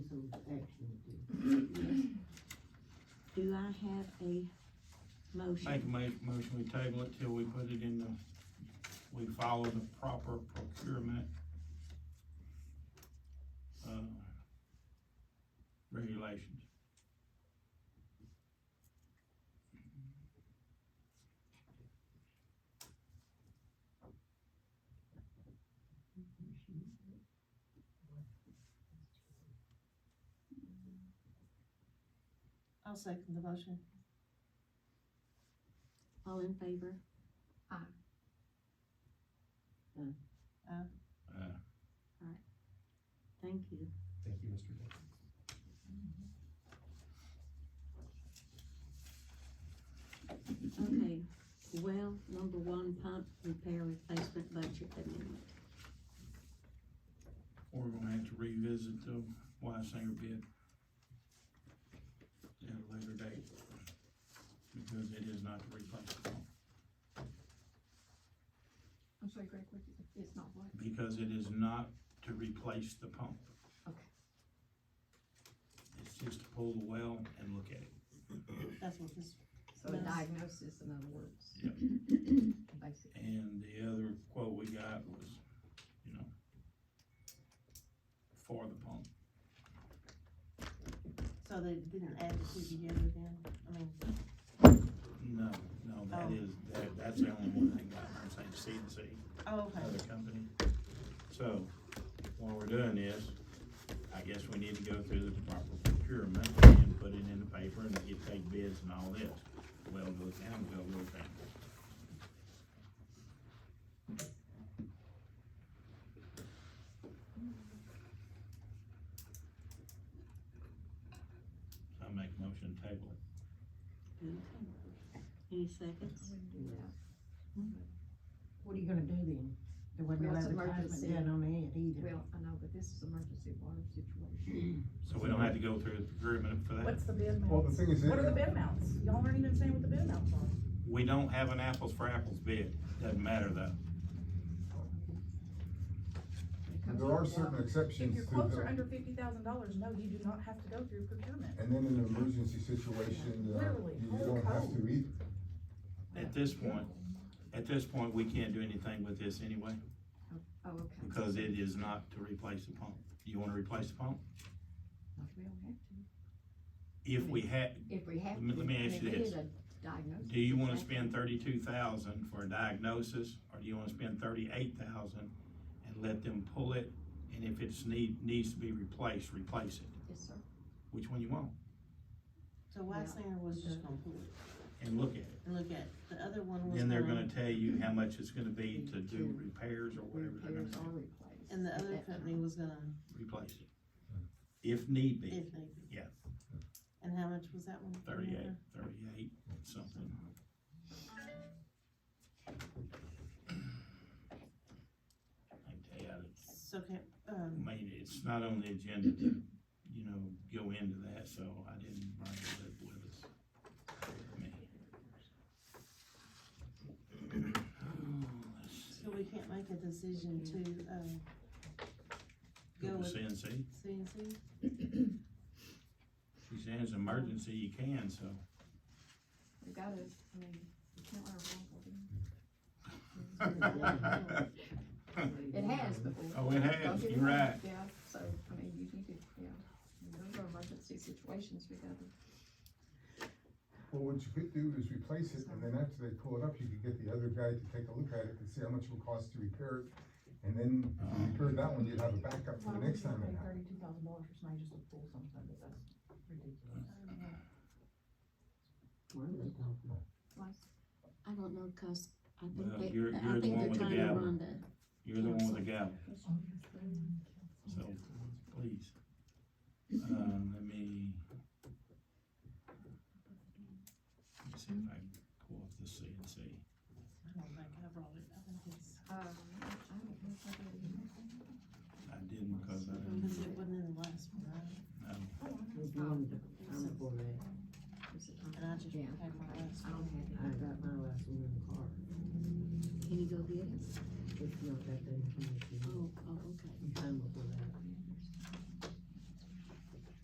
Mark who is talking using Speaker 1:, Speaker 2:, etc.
Speaker 1: some action to do.
Speaker 2: Mm-hmm. Do I have a
Speaker 3: Make a
Speaker 2: motion?
Speaker 3: ma- motion, we table it till we put it in the, we follow the proper procurement. uh, Regulations.
Speaker 4: I'll second the motion.
Speaker 2: All in favor?
Speaker 3: Uh,
Speaker 2: Thank you.
Speaker 5: Thank you, Mr. Dick.
Speaker 2: Okay, well, number one, pump repair replacement budget amendment.
Speaker 3: We're gonna have to revisit the Wysinger bid at a later date, because it is not the replacement pump,
Speaker 6: I'm sorry, Greg, what, it's not what?
Speaker 3: because it is not to replace the pump.
Speaker 6: Okay.
Speaker 3: It's just to pull the well and look at it.
Speaker 4: That's what this,
Speaker 6: So a
Speaker 4: Yes.
Speaker 6: diagnosis, in other words.
Speaker 3: Yep.
Speaker 6: Basically.
Speaker 3: And the other quote we got was, you know, for the pump.
Speaker 4: so they didn't add the two together then? I mean,
Speaker 3: No, no, that
Speaker 4: Oh.
Speaker 3: is, that, that's the only one thing that I'm saying, C and C,
Speaker 4: oh, okay,
Speaker 3: other company. So, while we're doing this, I guess we need to go through the proper procurement and put it in the paper and get take bids and all this. Well goes down, well goes down. So I make a motion to table it.
Speaker 2: Okay. Any seconds?
Speaker 1: What are you gonna do then? There wasn't no
Speaker 6: Well, it's
Speaker 1: advertisement
Speaker 6: emergency.
Speaker 1: done on it either.
Speaker 6: Well, I know, but this is emergency water situation.
Speaker 3: So we don't have to go through the procurement for that.
Speaker 7: What's the bid
Speaker 5: Well,
Speaker 7: mounts?
Speaker 5: the thing is,
Speaker 7: What are
Speaker 5: it-
Speaker 7: the bid mounts? Y'all aren't even saying what the bid mounts are.
Speaker 3: We don't have an apples for apples bid. Doesn't matter though.
Speaker 5: there are certain
Speaker 7: If
Speaker 5: exceptions
Speaker 7: your
Speaker 5: to
Speaker 7: quotes are
Speaker 5: the,
Speaker 7: under fifty thousand dollars, no, you do not have to go through procurement.
Speaker 5: and then in an emergency situation, uh,
Speaker 7: Literally,
Speaker 5: you
Speaker 7: whole
Speaker 5: don't have
Speaker 7: code.
Speaker 5: to either.
Speaker 3: At this point, at this point, we can't do anything with this anyway,
Speaker 6: Oh, okay.
Speaker 3: because it is not to replace the pump. You wanna replace the pump?
Speaker 6: We don't have
Speaker 3: If we had,
Speaker 6: to. If we have
Speaker 3: Let me-
Speaker 6: to.
Speaker 3: let me ask
Speaker 6: if
Speaker 3: you
Speaker 6: it
Speaker 3: this.
Speaker 6: is a Diagnosis.
Speaker 3: do you wanna
Speaker 6: okay.
Speaker 3: spend thirty-two thousand for a diagnosis, or do you wanna spend thirty-eight thousand and let them pull it? And if it's need, needs to be replaced, replace it.
Speaker 6: Yes, sir.
Speaker 3: Which one you want?
Speaker 4: so Waxinger was just gonna pull it
Speaker 3: And look at it.
Speaker 4: and look at, it. the other one was.
Speaker 3: Then they're gonna tell you how much it's gonna be to
Speaker 6: To
Speaker 3: do repairs or whatever they're gonna
Speaker 6: Repairs
Speaker 3: do.
Speaker 6: are replaced.
Speaker 4: And the
Speaker 6: at
Speaker 4: other
Speaker 6: that
Speaker 4: company
Speaker 6: time.
Speaker 4: was gonna,
Speaker 3: replace it. If need
Speaker 4: if
Speaker 3: be,
Speaker 4: they. did.
Speaker 3: Yeah.
Speaker 4: And how much was that one?
Speaker 3: thirty-eight, thirty-eight, something. I tell you,
Speaker 4: So, okay,
Speaker 3: I
Speaker 4: um,
Speaker 3: mean, it's not on the agenda to, you know, go into that, so I didn't bring it up with us. I mean. Let's see.
Speaker 4: so we can't make a decision to, um,
Speaker 3: Go
Speaker 4: go
Speaker 3: to
Speaker 4: with
Speaker 3: CNC,
Speaker 4: CNC?
Speaker 3: she says emergency, you can, so.
Speaker 6: We gotta, I mean, you can't let it roll. It has before.
Speaker 3: Oh, it has, you're right.
Speaker 6: Yeah, so, I mean, you need to, yeah, I mean, those are emergency situations, we gotta,
Speaker 5: Well, what you could do is replace it, and then after they pull it up, you could get the other guy to take a look at it and see how much it would cost to repair it. And then if you repair that one, you'd have a backup for the next time it happens.
Speaker 7: Thirty-two thousand dollars for somebody just to pull something, but that's ridiculous.
Speaker 1: Well, they don't know.
Speaker 6: like,
Speaker 2: I don't know, cause I
Speaker 3: Well,
Speaker 2: think they,
Speaker 3: you're-
Speaker 2: I
Speaker 3: you're the
Speaker 2: think
Speaker 3: one
Speaker 2: they're
Speaker 3: with the
Speaker 2: trying to
Speaker 3: gavel.
Speaker 2: run the,
Speaker 3: You're the one with the gavel,
Speaker 6: Well,
Speaker 3: so please. Um, let me. let me See if I can pull up the C and C.
Speaker 4: I don't think I brought it, I think it's,
Speaker 6: Um, I don't know if I did it.
Speaker 3: I didn't because I didn't,
Speaker 4: because it wasn't in the last one, right?
Speaker 3: know.
Speaker 6: Oh,
Speaker 1: We're doing the time for that.
Speaker 6: Is it on?
Speaker 4: and I just
Speaker 6: Yeah,
Speaker 4: had my
Speaker 6: okay,
Speaker 4: last
Speaker 6: Uh, I
Speaker 4: one.
Speaker 6: don't have it.
Speaker 1: I got my last one in the car.
Speaker 2: can you go get it?
Speaker 1: It's not that they can,
Speaker 2: Oh, oh, okay.
Speaker 1: time before that.